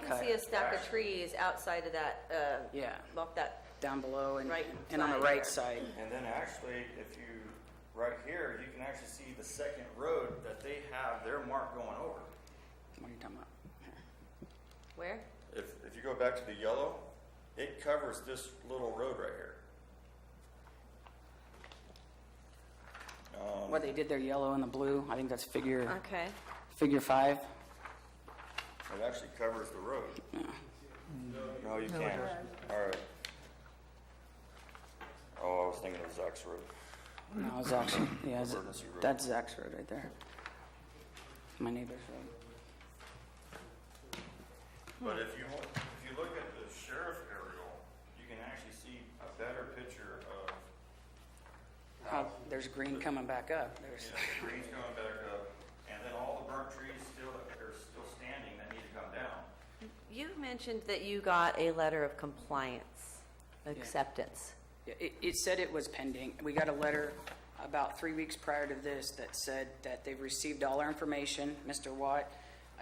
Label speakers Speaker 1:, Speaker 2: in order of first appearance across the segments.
Speaker 1: can see a stack of trees outside of that, uh,
Speaker 2: Yeah,
Speaker 1: off that,
Speaker 2: down below and,
Speaker 1: Right
Speaker 2: and on the
Speaker 1: side there.
Speaker 2: right side.
Speaker 3: And then actually, if you, right here, you can actually see the second road that they have their mark going over.
Speaker 2: What are you talking about?
Speaker 1: where?
Speaker 3: If, if you go back to the yellow, it covers this little road right here. Um,
Speaker 2: What they did there, yellow and the blue, I think that's figure,
Speaker 1: Okay.
Speaker 2: figure five.
Speaker 3: It actually covers the road. No, you can't. All right. Oh, I was thinking of Zach's road.
Speaker 2: No, it's actually, yeah, it's-
Speaker 3: Emergency road.
Speaker 2: that's Zach's road right there. My neighbor's road.
Speaker 3: But if you, if you look at the sheriff aerial, you can actually see a better picture of
Speaker 2: Oh, there's green coming back up. There's,
Speaker 3: Yeah, the trees going back up, and then all the burnt trees still, are still standing that need to come down.
Speaker 1: You mentioned that you got a letter of compliance, acceptance.
Speaker 2: Yeah, it, it said it was pending. We got a letter about three weeks prior to this that said that they've received all our information, Mr. Watt.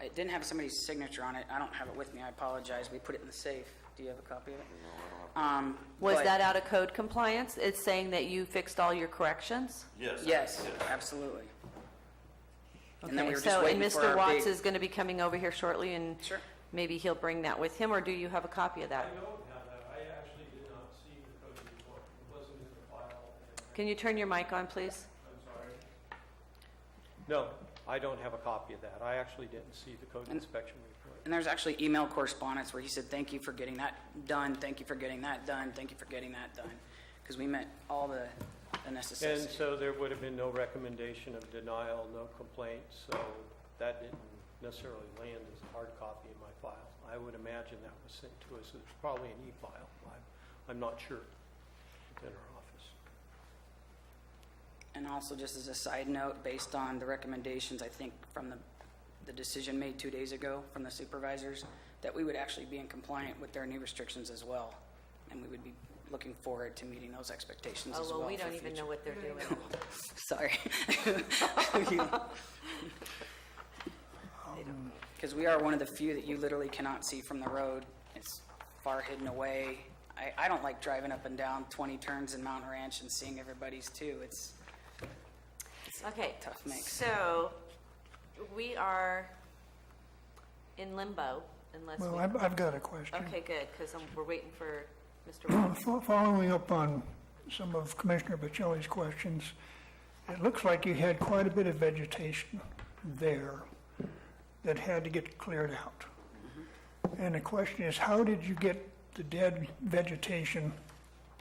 Speaker 2: It didn't have somebody's signature on it. I don't have it with me. I apologize. We put it in the safe. Do you have a copy of it? No, I don't have. Um.
Speaker 1: Was
Speaker 2: but-
Speaker 1: that out of code compliance? It's saying that you fixed all your corrections?
Speaker 3: Yes.
Speaker 2: Yes, absolutely. And then we
Speaker 1: Okay,
Speaker 2: were just waiting for
Speaker 1: So, and Mr.
Speaker 2: our
Speaker 1: Watts
Speaker 2: big.
Speaker 1: is going to be coming over here shortly, and
Speaker 2: Sure.
Speaker 1: maybe he'll bring that with him, or do you have a copy of that?
Speaker 4: I don't have that, I actually did not see the code report, it wasn't in the file, and
Speaker 1: Can you turn your mic on, please?
Speaker 4: I'm sorry. No, I don't have a copy of that, I actually didn't see the code inspection report.
Speaker 2: And there's actually email correspondence where he said, thank you for getting that done, thank you for getting that done, thank you for getting that done. Because we met all the, the necessary.
Speaker 4: And so there would have been no recommendation of denial, no complaint, so that didn't necessarily land as a hard copy in my file. I would imagine that was sent to us, it's probably an e-file, I'm, I'm not sure, it's in our office.
Speaker 2: And also, just as a side note, based on the recommendations, I think, from the, the decision made two days ago from the supervisors, that we would actually be in compliant with their new restrictions as well. And we would be looking forward to meeting those expectations as well.
Speaker 1: Oh, well, we
Speaker 2: for
Speaker 1: don't even
Speaker 2: future-
Speaker 1: know what they're doing.
Speaker 2: Sorry. Because we are one of the few that you literally cannot see from the road. It's far hidden away. I, I don't like driving up and down 20 turns in Mountain Ranch and seeing everybody's too. It's,
Speaker 1: Okay.
Speaker 2: Tough mix.
Speaker 1: So, we are in limbo unless we...
Speaker 5: Well, I've, I've got a question.
Speaker 1: Okay, good, because we're waiting for Mr. Wallace.
Speaker 5: Fo- Following up on some of Commissioner Bocelli's questions, it looks like you had quite a bit of vegetation there that had to get cleared out.
Speaker 2: Mm-hmm.
Speaker 5: And the question is, how did you get the dead vegetation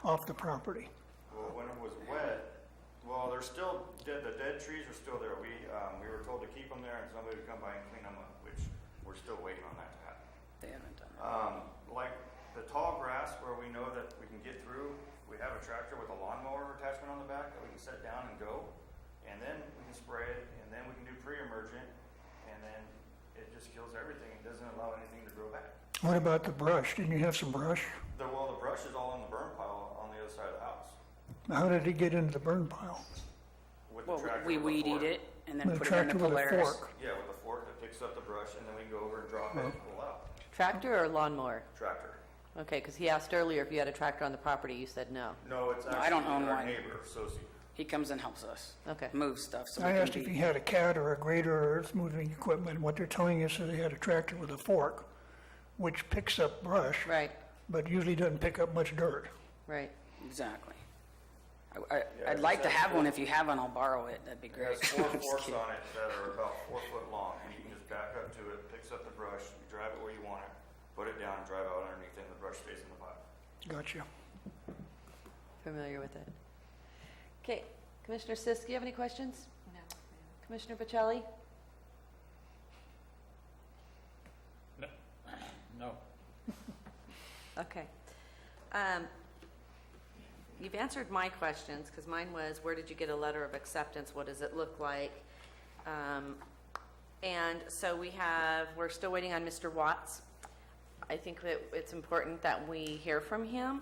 Speaker 5: off the property?
Speaker 3: Well, when it was wet, well, they're still, dead. the dead trees are still there. We, um, we were told to keep them there and somebody would come by and clean them up, which we're still waiting on that to happen.
Speaker 2: they haven't done it.
Speaker 3: Um, like the tall grass where we know that we can get through, we have a tractor with a lawnmower attachment on the back that we can set down and go. And then we can spray it, and then we can do pre-emergent, and then it just kills everything. It doesn't allow anything to grow back.
Speaker 5: What about the brush? Didn't you have some brush?
Speaker 3: The, well, the brush is all in the burn pile on the other side of the house.
Speaker 5: How did it get into the burn pile?
Speaker 3: With the
Speaker 2: Well,
Speaker 3: tractor.
Speaker 2: we
Speaker 3: with a
Speaker 2: weed eat
Speaker 3: fork.
Speaker 2: it and then
Speaker 5: With a
Speaker 2: put it in the
Speaker 5: tractor with a
Speaker 2: Polaris.
Speaker 5: fork.
Speaker 3: Yeah, with a fork that picks up the brush, and then we go over and drop it and pull out.
Speaker 1: Tractor or lawnmower?
Speaker 3: Tractor.
Speaker 1: Okay, because he asked earlier if you had a tractor on the property, you said no.
Speaker 3: No, it's
Speaker 2: No,
Speaker 3: actually
Speaker 2: I don't own
Speaker 3: our
Speaker 2: one.
Speaker 3: neighbor, Sosie.
Speaker 2: He comes and helps us
Speaker 1: Okay.
Speaker 2: move stuff so
Speaker 5: I
Speaker 2: we
Speaker 5: asked
Speaker 2: can
Speaker 5: if you
Speaker 2: be.
Speaker 5: had a cat or a grader or earth moving equipment. What they're telling us is they had a tractor with a fork, which picks up brush.
Speaker 1: Right,
Speaker 5: but usually doesn't pick up much dirt.
Speaker 1: right.
Speaker 2: Exactly. I- I,
Speaker 3: Yeah,
Speaker 2: I'd like to
Speaker 3: that's-
Speaker 2: have one. If you have one, I'll borrow it. That'd be
Speaker 3: It has
Speaker 2: great.
Speaker 3: four
Speaker 2: I'm just
Speaker 3: forks
Speaker 2: kidding.
Speaker 3: on it that are about four foot long, and you can just back up to it, picks up the brush, you drive it where you want it, put it down, drive out underneath it, and the brush stays in the pile.
Speaker 5: Gotcha.
Speaker 1: Familiar with it. Okay, Commissioner Sisk, you have any questions? No. Commissioner Bocelli?
Speaker 6: No.
Speaker 1: Okay. Um, You've answered my questions, because mine was, where did you get a letter of acceptance? What does it look like? Um, And so we have, we're still waiting on Mr. Watts. I think that it's important that we hear from him.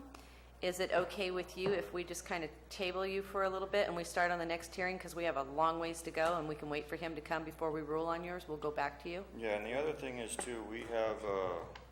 Speaker 1: Is it okay with you if we just kind of table you for a little bit and we start on the next hearing? Because we have a long ways to go, and we can wait for him to come before we rule on yours. We'll go back to you.
Speaker 3: Yeah, and the other thing is too, we have, uh,